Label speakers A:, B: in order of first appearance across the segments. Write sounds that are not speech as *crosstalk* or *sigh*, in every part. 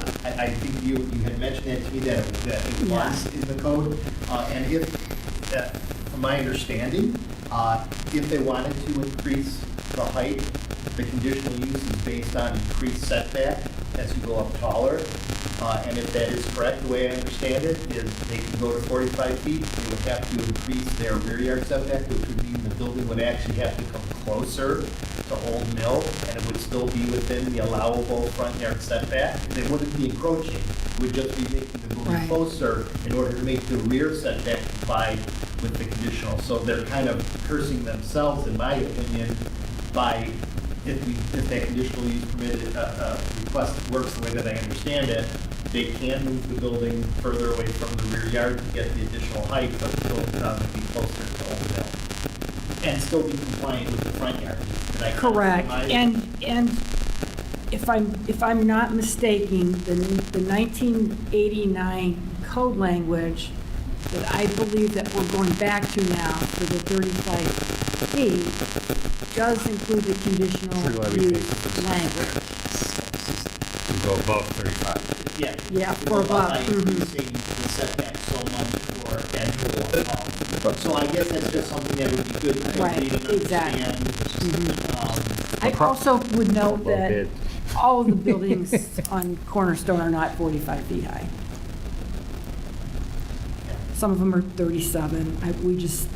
A: that, I think you, you had mentioned that to me, that, it- that it
B: Yeah.
A: was in the code. Uh, and if, that, from my understanding, uh, if they wanted to increase the height, the conditional use is based on increased setback as you go up taller. Uh, and if that is correct, the way I understand it, is they can go to forty-five feet, they would have to increase their rear yard setback, which would mean the building would actually have to come closer to Old Mill, and it would still be within the allowable front yard setback. They wouldn't be encroaching, it would just be making the building
B: Right.
A: closer in order to make the rear setback comply with the conditional. So they're kind of cursing themselves, in my opinion, by, if we, if that conditional use permitted, uh, uh, request works the way that I understand it, they can move the building further away from the rear yard to get the additional height, but still, um, be closer to Old Mill and still be compliant with the front yard. Did I
B: Correct,
A: compromise?
B: and, and if I'm, if I'm not mistaken, the the 1989 code language that I believe that we're going back to now for the 35 feet does include the
C: Pretty
B: conditional
C: wide we
B: use
C: think.
B: language.
C: to go above 35.
A: Yeah.
B: Yeah,
A: It's
B: for
A: about
B: about,
A: by
B: mhm.
A: Increasing the setback so much for annual, um,
C: But-
A: so I guess that's just something that would be good to
B: Right,
A: read and
B: exactly. Mm-hmm.
A: understand. Um,
B: I
C: Appro-
B: also would note
C: Above
B: that
C: it.
B: all
D: *laughs*
B: of the buildings on Cornerstone are not 45 feet high. Some of them are 37. I, we just,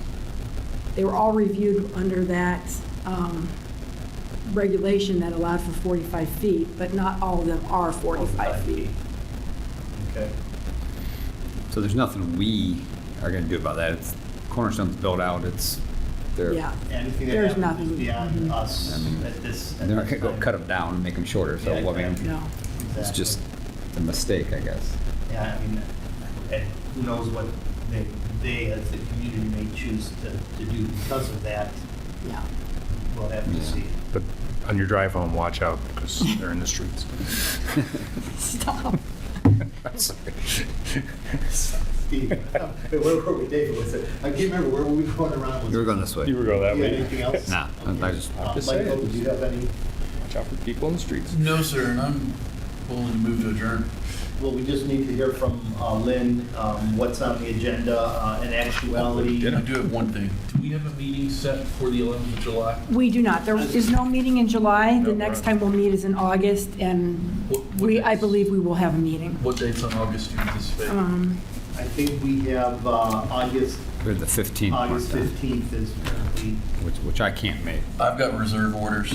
B: they were all reviewed under that um, regulation that allowed for 45 feet, but not all of them are 45 feet.
A: Okay.
C: So there's nothing we E are going to do about that. It's Cornerstone's built out, it's their,
B: Yeah.
A: Anything
B: There's
A: that happens
B: nothing.
A: is beyond
B: Mhm.
C: I
A: us
C: mean,
A: at this. at
C: they're not
A: this
C: going to go
A: time.
C: cut them down and make them shorter, so
A: Yeah,
C: I mean,
A: exactly.
B: No.
C: it's
A: Exactly.
C: just a mistake, I guess.
A: Yeah, I mean, and who knows what they, they as the community may choose to, to do because of that,
B: Yeah. *laughs*
A: we'll have to
C: Yeah.
A: see.
E: But on your drive home, watch out because they're in the *laughs* streets.
B: Stop.
A: Steve, wait, where were we, David, was it, I can't remember, where were we going around? Was
C: You were
A: it-
C: going this way.
E: You were going that
A: You had
E: way.
A: anything else?
C: Nah, I- I
A: Okay.
C: just-
A: Uh,
E: I'm just
A: Michael,
E: saying.
A: did you have any,
E: Watch out for people in the streets.
D: No, sir, and I'm willing to move to adjourn.
A: well, we just need to hear from uh, Lynn, um, what's on the agenda, uh, in actuality.
D: I do have one thing. Do we have a meeting set for the 11th of July?
B: We do not. There is no meeting in July. The
D: No,
B: next
D: right.
B: time we'll meet is in August, and
D: What- what
B: we, I
D: dates?
B: believe we will have a meeting.
D: What dates on August do you anticipate?
B: Um,
A: I think we have, uh, August,
C: We're the 15th,
A: August
C: marked down,
A: fifteenth is currently,
C: which, which I can't make.
D: I've got reserve orders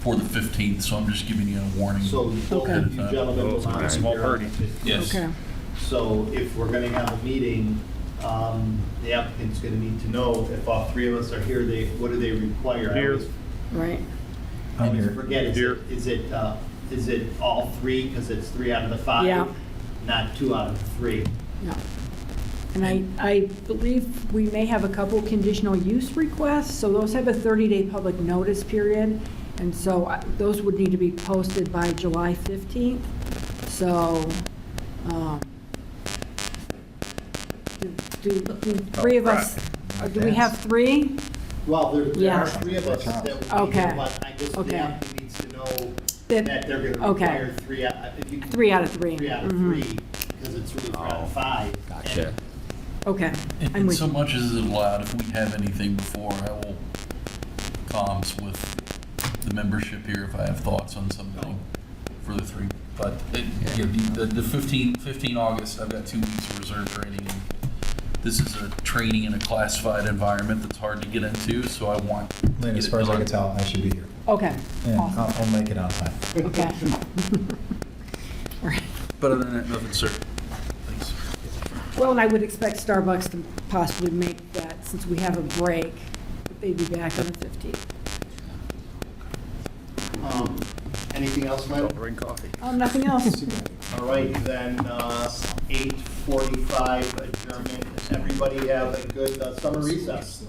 D: for the 15th, so I'm just giving you a warning.
A: so both
B: Okay.
A: of you gentlemen.
E: Oh,
A: will
E: it's gonna be a
A: not be
E: small
A: here on
E: party.
A: the 15th.
D: Yes.
B: Okay.
A: So if we're going to have a meeting, um, the applicant's going to need to know if all three of us are here, they, what do they require? I
E: Here.
A: always-
B: Right.
A: I always forget, is
E: Here.
A: it, is it, uh, is it all three, because it's three out of the five?
B: Yeah.
A: Not two out of three?
B: No. And I, I believe we may have a couple conditional use requests, so those have a 30-day public notice period, and so I- those would need to be posted by July 15th. So, um, do, do do three of us, or do we have three?
A: Well, there, there
B: Yeah.
A: are three of us that would be
B: Okay.
A: here, but I guess the
B: Okay.
A: applicant needs to know
B: That-
A: that they're going to
B: okay.
A: require three out, if you. can-
B: Three out of three.
A: Three out of
B: Mhm.
A: three, because it's really three out
C: Oh,
A: of five.
C: Gotcha.
A: And
B: Okay.
D: And-
B: I'm
D: And
B: with
D: so
B: you.
D: much as is allowed, if we have anything before, I will comms with the membership here if I have thoughts on something for the three. But it- yeah, the the- the 15, 15 August, I've got two weeks of reserve training. and This is a training in a classified environment that's hard to get into, so I want.
F: Lynn, as
D: get it
F: far as I
D: done.
F: can tell, I should be here.
B: Okay.
F: And
B: Awesome.
F: I'll, I'll make it on time.
B: Okay. All right.
D: But other than that, nothing, sir. Thanks.
B: Well, and I would expect Starbucks to possibly make that, since we have a break, but they'd be back on the 15th.
A: um, Anything else, Michael?
E: Don't bring coffee.
B: Um, nothing else.
A: All right, then, eight forty-five adjournment. Everybody have a good uh, summer recess.